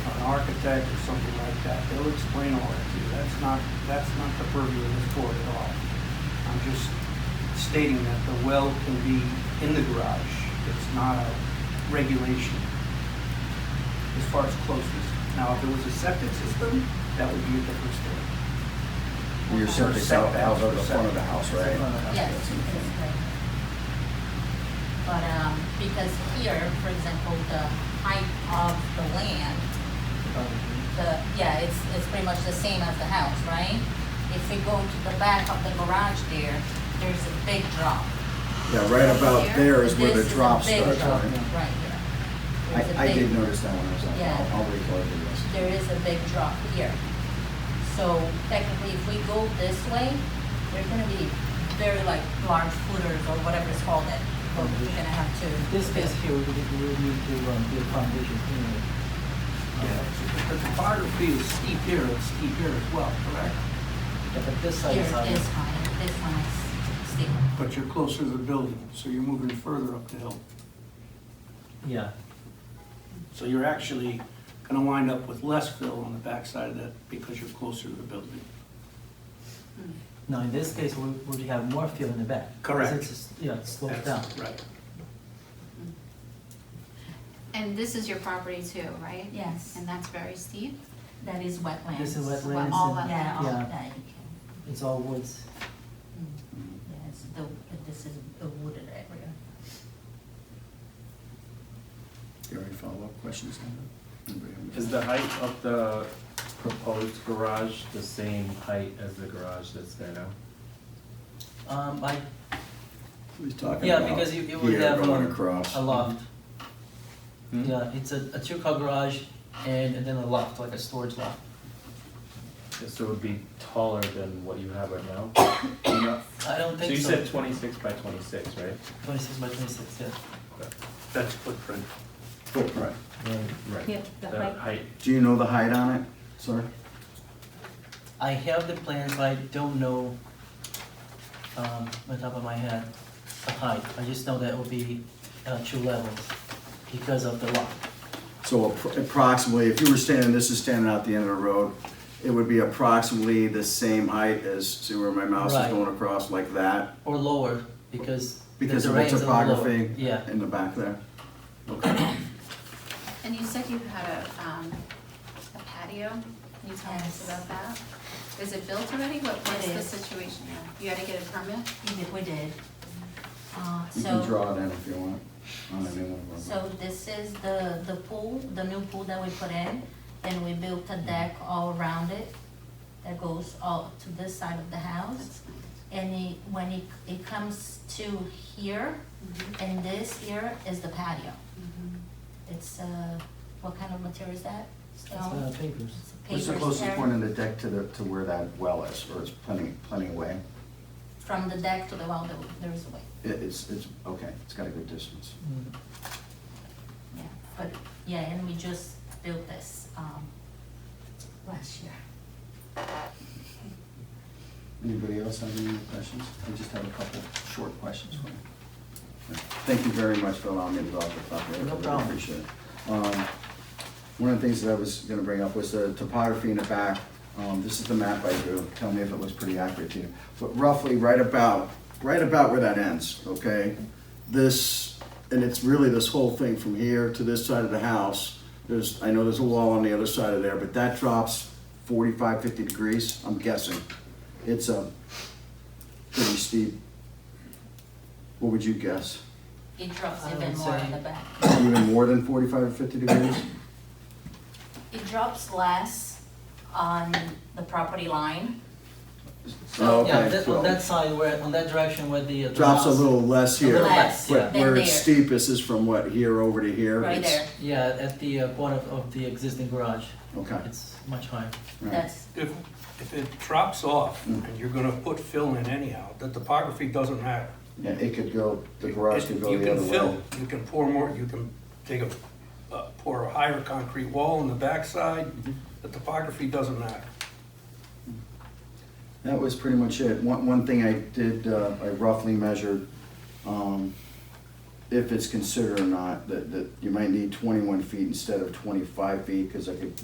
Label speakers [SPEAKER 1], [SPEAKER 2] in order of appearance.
[SPEAKER 1] architect or something like that. They'll explain all that to you. That's not, that's not the purview of this board at all. I'm just stating that the well can be in the garage. It's not a regulation as far as closeness. Now, if it was a septic system, that would be a different story.
[SPEAKER 2] Your septic out-
[SPEAKER 1] Setbacks
[SPEAKER 2] out of the
[SPEAKER 1] for
[SPEAKER 2] front of the
[SPEAKER 1] septic.
[SPEAKER 2] house,
[SPEAKER 1] It's in front of the
[SPEAKER 2] right?
[SPEAKER 1] house,
[SPEAKER 3] Yes, it's great. But, um, because here, for example, the height of the land,
[SPEAKER 4] Um,
[SPEAKER 3] the, yeah, it's, it's pretty much the same as the house, right? If we go to the back of the garage there, there's a big drop.
[SPEAKER 2] Yeah, right about there is where the
[SPEAKER 3] This is a
[SPEAKER 2] drop
[SPEAKER 3] big
[SPEAKER 2] starts,
[SPEAKER 3] drop
[SPEAKER 2] right?
[SPEAKER 3] Right here. There's a
[SPEAKER 2] I, I
[SPEAKER 3] big-
[SPEAKER 2] did notice that when I was out,
[SPEAKER 3] Yeah.
[SPEAKER 2] I'll, I'll record the rest.
[SPEAKER 3] There is a big drop here. So technically, if we go this way, there's gonna be very like large footers or whatever it's called that we're gonna have to.
[SPEAKER 4] This space here, we we would need to um, do a foundation anyway.
[SPEAKER 1] Yeah, Uh, so The topography is steep here, it's steep here as well, correct?
[SPEAKER 4] Yeah, But this
[SPEAKER 3] Here
[SPEAKER 4] side
[SPEAKER 3] it
[SPEAKER 4] is
[SPEAKER 3] is
[SPEAKER 4] higher.
[SPEAKER 3] high, this one is steeper.
[SPEAKER 1] But you're closer to the building, so you're moving further up the hill.
[SPEAKER 4] Yeah,
[SPEAKER 1] So you're actually gonna wind up with less fill on the backside of that because you're closer to the building.
[SPEAKER 4] no, in this case, we would have more fill in the back. 'cause
[SPEAKER 1] Correct.
[SPEAKER 4] it's just- Yeah, it slopes down.
[SPEAKER 1] That's Right.
[SPEAKER 5] And this is your property too, right?
[SPEAKER 3] Yes,
[SPEAKER 5] And that's very steep?
[SPEAKER 3] that is wetlands.
[SPEAKER 4] This is
[SPEAKER 5] Well,
[SPEAKER 4] wetlands
[SPEAKER 5] all
[SPEAKER 4] and
[SPEAKER 5] wetlands.
[SPEAKER 3] Yeah, all
[SPEAKER 4] Yeah.
[SPEAKER 3] of that you can,
[SPEAKER 4] it's all woods.
[SPEAKER 3] mm,
[SPEAKER 2] Mm-hmm.
[SPEAKER 3] yes, the, this is a wooded area.
[SPEAKER 2] Do you have any follow-up questions on that? Anybody have any-
[SPEAKER 6] Is the height of the proposed garage the same height as the garage that's there now?
[SPEAKER 4] Um, I,
[SPEAKER 2] He's talking
[SPEAKER 4] yeah,
[SPEAKER 2] about
[SPEAKER 4] because you, you would
[SPEAKER 2] here
[SPEAKER 4] have
[SPEAKER 2] going
[SPEAKER 4] um,
[SPEAKER 2] across.
[SPEAKER 4] a loft.
[SPEAKER 6] Hmm?
[SPEAKER 4] Yeah, it's a, a two-car garage and, and then a loft, like a storage loft.
[SPEAKER 6] So it would be taller than what you have right now?
[SPEAKER 4] I don't
[SPEAKER 6] So
[SPEAKER 4] think
[SPEAKER 6] you
[SPEAKER 4] so.
[SPEAKER 6] said twenty-six by twenty-six, right?
[SPEAKER 4] Twenty-six by twenty-six, yeah.
[SPEAKER 1] That's footprint.
[SPEAKER 2] Footprint.
[SPEAKER 6] Right.
[SPEAKER 7] Yep, the height.
[SPEAKER 2] Oh, Do you know the height on it, sir?
[SPEAKER 4] I have the plans, but I don't know, um, on top of my head, the height. I just know that it will be, uh, two levels because of the loft.
[SPEAKER 2] So appro- approximately, if you were standing, this is standing out the end of the road, it would be approximately the same height as, see where my mouse is
[SPEAKER 4] Right.
[SPEAKER 2] going across, like that?
[SPEAKER 4] Or lower, because. the
[SPEAKER 2] Because of the
[SPEAKER 4] terrain's a little lower.
[SPEAKER 2] topography
[SPEAKER 4] Yeah,
[SPEAKER 2] in the back there?
[SPEAKER 5] And you said you had a, um, a patio? Can you tell us
[SPEAKER 3] Yes.
[SPEAKER 5] about that? Is it built already? What, what's
[SPEAKER 3] It
[SPEAKER 5] the
[SPEAKER 3] is.
[SPEAKER 5] situation now? You had to get a permit?
[SPEAKER 3] Even we did. Uh,
[SPEAKER 2] You can
[SPEAKER 3] so,
[SPEAKER 2] draw it in if you want. on any one of them.
[SPEAKER 3] so this is the, the pool, the new pool that we put in, and we built a deck all around it that goes all to this side of the house.
[SPEAKER 5] That's
[SPEAKER 3] And it, when it, it comes to here,
[SPEAKER 5] Mhm.
[SPEAKER 3] and this here is the patio.
[SPEAKER 5] Mhm.
[SPEAKER 3] It's, uh, what kind of material is that?
[SPEAKER 4] it's, uh,
[SPEAKER 3] Stone?
[SPEAKER 4] papers.
[SPEAKER 3] It's
[SPEAKER 2] What's the
[SPEAKER 3] paper
[SPEAKER 2] closest
[SPEAKER 3] stair.
[SPEAKER 2] point in the deck to the, to where that well is, or it's plenty, plenty away?
[SPEAKER 3] From the deck to the wall, there, there is a way,
[SPEAKER 2] It, it's, it's, okay, it's got a good distance.
[SPEAKER 4] Mm.
[SPEAKER 3] yeah. But, yeah, and we just built this, um, last year.
[SPEAKER 2] Anybody else have any questions? I just have a couple short questions for you. Thank you very much for allowing me to go off the topic. I
[SPEAKER 4] No
[SPEAKER 2] really
[SPEAKER 4] problem.
[SPEAKER 2] Appreciate it. Um, One of the things that I was gonna bring up was the topography in the back. Um, this is the map I drew. Tell me if it looks pretty accurate to you. But roughly right about, right about where that ends, okay? This, and it's really this whole thing from here to this side of the house. There's, I know there's a wall on the other side of there, but that drops 45, 50 degrees, I'm guessing. It's a pretty steep, what would you guess?
[SPEAKER 3] It drops
[SPEAKER 4] I
[SPEAKER 3] even
[SPEAKER 4] would
[SPEAKER 3] more in
[SPEAKER 4] say-
[SPEAKER 3] the back.
[SPEAKER 2] Even more than 45 or 50 degrees?
[SPEAKER 3] It drops less on the property line.
[SPEAKER 2] Oh,
[SPEAKER 4] Yeah,
[SPEAKER 2] okay,
[SPEAKER 4] that,
[SPEAKER 2] so-
[SPEAKER 4] on that side where, on that direction where the. uh, the
[SPEAKER 2] Drops a
[SPEAKER 4] house-
[SPEAKER 2] little less here,
[SPEAKER 4] little
[SPEAKER 3] less
[SPEAKER 2] but
[SPEAKER 3] than
[SPEAKER 2] where it's
[SPEAKER 3] there.
[SPEAKER 2] steepest is from what, here over to here?
[SPEAKER 3] Right
[SPEAKER 2] It's-
[SPEAKER 3] there,
[SPEAKER 4] Yeah, at the uh, corner of- of the existing garage,
[SPEAKER 2] Okay,
[SPEAKER 4] it's much higher.
[SPEAKER 2] right.
[SPEAKER 3] that's,
[SPEAKER 1] If, if it drops off and you're gonna put fill in anyhow, the topography doesn't matter.
[SPEAKER 2] Yeah, it could go, the garage could go
[SPEAKER 1] You
[SPEAKER 2] the
[SPEAKER 1] can
[SPEAKER 2] other way.
[SPEAKER 1] fill, you can pour more, you can take a, uh, pour a higher concrete wall in the backside. The topography doesn't matter.
[SPEAKER 2] That was pretty much it. One, one thing I did, uh, I roughly measured, um, if it's considered or not, that, that you might need twenty-one feet instead of twenty-five feet, cause I could